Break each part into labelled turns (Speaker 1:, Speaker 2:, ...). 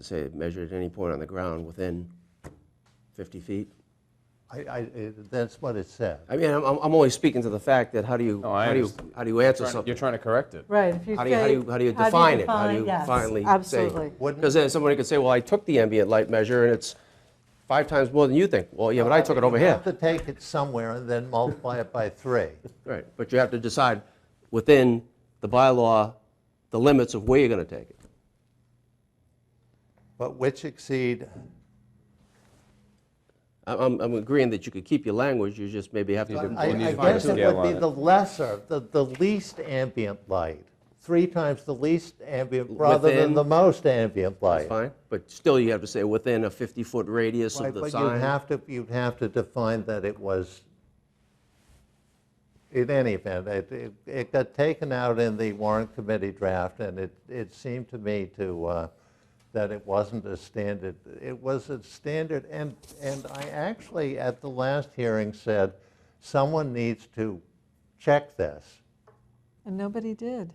Speaker 1: to say measured at any point on the ground within 50 feet?
Speaker 2: I, I, it- that's what it said.
Speaker 1: I mean, I'm, I'm I'm only speaking to the fact that how do you,
Speaker 3: No, I
Speaker 1: how do you,
Speaker 3: understand.
Speaker 1: how do you answer
Speaker 3: Trying to-
Speaker 1: something?
Speaker 3: You're trying to correct it.
Speaker 4: Right, if you
Speaker 1: How do you, how do you, how do you
Speaker 4: say-
Speaker 1: define it? How do you
Speaker 4: yes,
Speaker 1: finally say?
Speaker 4: Absolutely.
Speaker 2: Wouldn't-
Speaker 1: Because then somebody could say, well, I took the ambient light measure and it's five times more than you think. Well, yeah, but I took it over
Speaker 2: You
Speaker 1: here.
Speaker 2: have to take it somewhere and then multiply it by three.
Speaker 1: Right, but you have to decide within the bylaw, the limits of where you're going to take it.
Speaker 2: But which exceed,
Speaker 1: I- I'm, I'm agreeing that you could keep your language, you just maybe have to.
Speaker 2: I
Speaker 1: do-
Speaker 2: I
Speaker 3: we need to find a
Speaker 2: guess it
Speaker 3: scale
Speaker 2: would be
Speaker 3: on it.
Speaker 2: the lesser, the, the least ambient light, three times the least ambient, rather
Speaker 1: Within-
Speaker 2: than the most ambient
Speaker 1: That's
Speaker 2: light.
Speaker 1: fine, but still you have to say within a 50-foot radius
Speaker 2: Right,
Speaker 1: of the
Speaker 2: But you'd
Speaker 1: sign.
Speaker 2: have to, you'd have to define that it was, in any event, it, it- it got taken out in the warrant committee draft, and it, it seemed to me to, uh, that it wasn't a standard, it was a standard, and, and I actually, at the last hearing, said, someone needs to check this.
Speaker 4: And nobody did.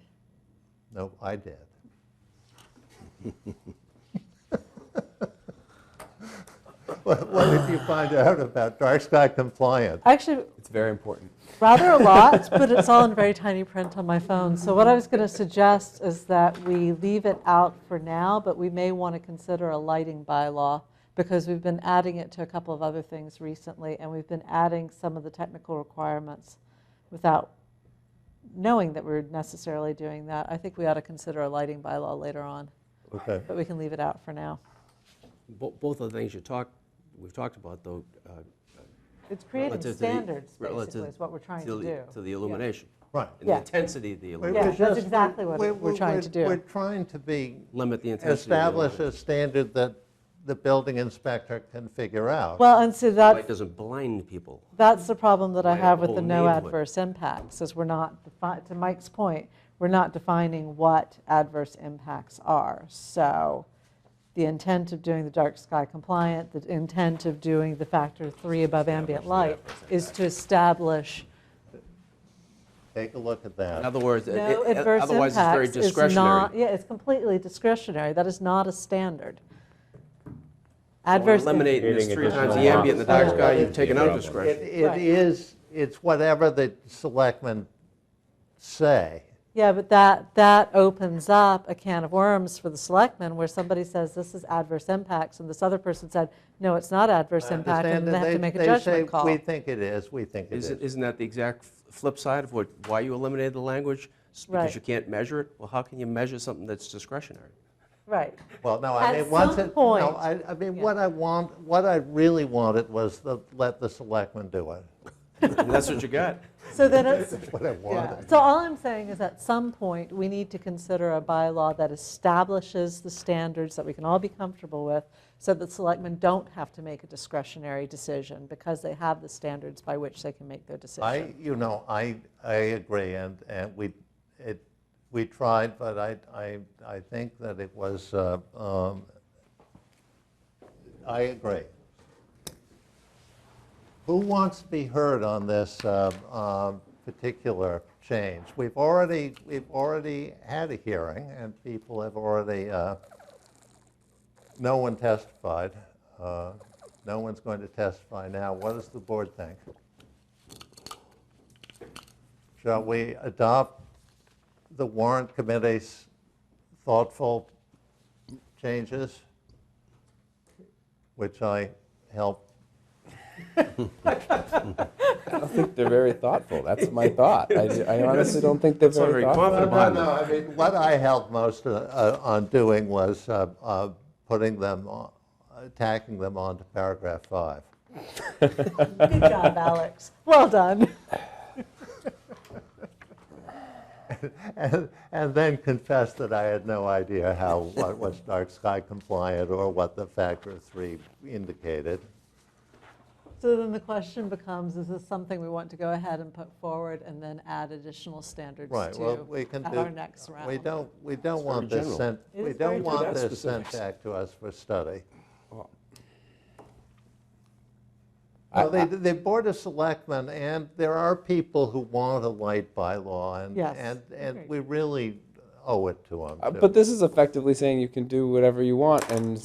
Speaker 2: No, I did. What what did you find out about dark sky compliance?
Speaker 4: Actually,
Speaker 3: It's very important.
Speaker 4: rather a lot, but it's all in very tiny print on my phone. So what I was going to suggest is that we leave it out for now, but we may want to consider a lighting bylaw because we've been adding it to a couple of other things recently, and we've been adding some of the technical requirements without knowing that we're necessarily doing that. I think we ought to consider a lighting bylaw later on,
Speaker 2: Okay.
Speaker 4: but we can leave it out for now.
Speaker 1: Bo- Both of the things you talked, we've talked about though. uh,
Speaker 4: It's creating
Speaker 1: relative to the-
Speaker 4: standards, basically,
Speaker 1: relative
Speaker 4: is what we're trying to
Speaker 1: the-
Speaker 4: do.
Speaker 1: To the illumination.
Speaker 2: Right.
Speaker 1: And the
Speaker 4: Yeah.
Speaker 1: intensity of the
Speaker 2: We're-
Speaker 4: Yeah,
Speaker 2: we're
Speaker 1: illumination,
Speaker 4: that's
Speaker 2: just-
Speaker 4: exactly what we're trying to do.
Speaker 2: We're trying to be,
Speaker 1: limit the intensity. of the
Speaker 2: establish
Speaker 1: illumination.
Speaker 2: a standard that the building inspector can figure out.
Speaker 4: Well, and so
Speaker 1: Light
Speaker 4: that,
Speaker 1: doesn't blind people.
Speaker 4: that's the problem that I
Speaker 1: Like a
Speaker 4: have with the
Speaker 1: whole
Speaker 4: no
Speaker 1: neighborhood.
Speaker 4: adverse impacts, is we're not, defi- to Mike's point, we're not defining what adverse impacts are. So the intent of doing the dark sky compliant, the intent of doing the factor three above ambient light is to establish
Speaker 2: Take a look at that.
Speaker 1: In other words, it-
Speaker 4: no
Speaker 1: it-
Speaker 4: adverse
Speaker 1: otherwise it's very
Speaker 4: impacts is not,
Speaker 1: discretionary.
Speaker 4: yeah, it's completely discretionary. That is not a standard.
Speaker 1: We're
Speaker 4: Adverse. im-
Speaker 1: Eliminating this
Speaker 3: Creating
Speaker 1: three times the
Speaker 3: additional
Speaker 1: ambient in the dark
Speaker 2: boxes.
Speaker 1: sky, you've
Speaker 2: Yeah.
Speaker 1: taken out
Speaker 3: Problem.
Speaker 2: It
Speaker 1: discretion.
Speaker 2: it
Speaker 4: Right.
Speaker 2: is, it's whatever the selectmen say.
Speaker 4: Yeah, but that, that opens up a can of worms for the selectmen where somebody says, this is adverse impacts, and this other person said, no, it's not adverse impact,
Speaker 2: Understand
Speaker 4: and then they
Speaker 2: that
Speaker 4: have to make a
Speaker 2: they say,
Speaker 4: judgment
Speaker 2: We
Speaker 4: call.
Speaker 2: think it is, we think it is.
Speaker 1: Isn't, isn't that the exact f- flip side of what, why you eliminated the language? It's Because
Speaker 4: Right.
Speaker 1: you can't measure it? Well, how can you measure something that's discretionary?
Speaker 4: Right.
Speaker 2: Well, no, I
Speaker 4: At
Speaker 2: mean, once
Speaker 4: some
Speaker 2: it,
Speaker 4: point.
Speaker 2: no, I, I mean,
Speaker 4: Yeah.
Speaker 2: what I want, what I really wanted was the, let the selectmen do it.
Speaker 1: And that's what you got.
Speaker 4: So then it's,
Speaker 2: What I
Speaker 4: yeah.
Speaker 2: wanted.
Speaker 4: So all I'm saying is at some point, we need to consider a bylaw that establishes the standards that we can all be comfortable with so that selectmen don't have to make a discretionary decision because they have the standards by which they can make their decision.
Speaker 2: I, you know, I, I agree, and, and we, it, we tried, but I, I, I think that it was, uh, um, I agree. Who wants to be heard on this uh, um, particular change? We've already, we've already had a hearing, and people have already, uh, no one testified. Uh, No one's going to testify now. What does the board think? Shall we adopt the warrant committee's thoughtful changes, which I helped
Speaker 5: I think they're very thoughtful. That's my thought. I, I honestly don't think they're
Speaker 1: Sound
Speaker 5: very
Speaker 1: very
Speaker 5: thoughtful. Uh,
Speaker 1: confident
Speaker 2: No,
Speaker 1: behind
Speaker 2: no,
Speaker 1: them.
Speaker 2: I mean, what I helped most uh, uh, on doing was uh, uh, putting them, on- tacking them onto paragraph five.
Speaker 4: Good job, Alex. Well done.
Speaker 2: And and then confessed that I had no idea how, what was dark sky compliant or what the factor of three indicated.
Speaker 4: So then the question becomes, is this something we want to go ahead and put forward and then add additional standards
Speaker 2: Right, well, we
Speaker 4: to
Speaker 2: can do.
Speaker 4: at our next round?
Speaker 2: We don't, we don't want
Speaker 1: very general.
Speaker 2: this sent,
Speaker 4: It
Speaker 2: we
Speaker 4: is very
Speaker 2: don't want
Speaker 5: general.
Speaker 2: this sent back to us for study. Well, the, the Board of Selectmen, and there are people who want a light bylaw, and,
Speaker 4: Yes,
Speaker 2: and, and
Speaker 4: agreed.
Speaker 2: we really owe it to them.
Speaker 5: Uh, But this is effectively saying you can do whatever you want, and as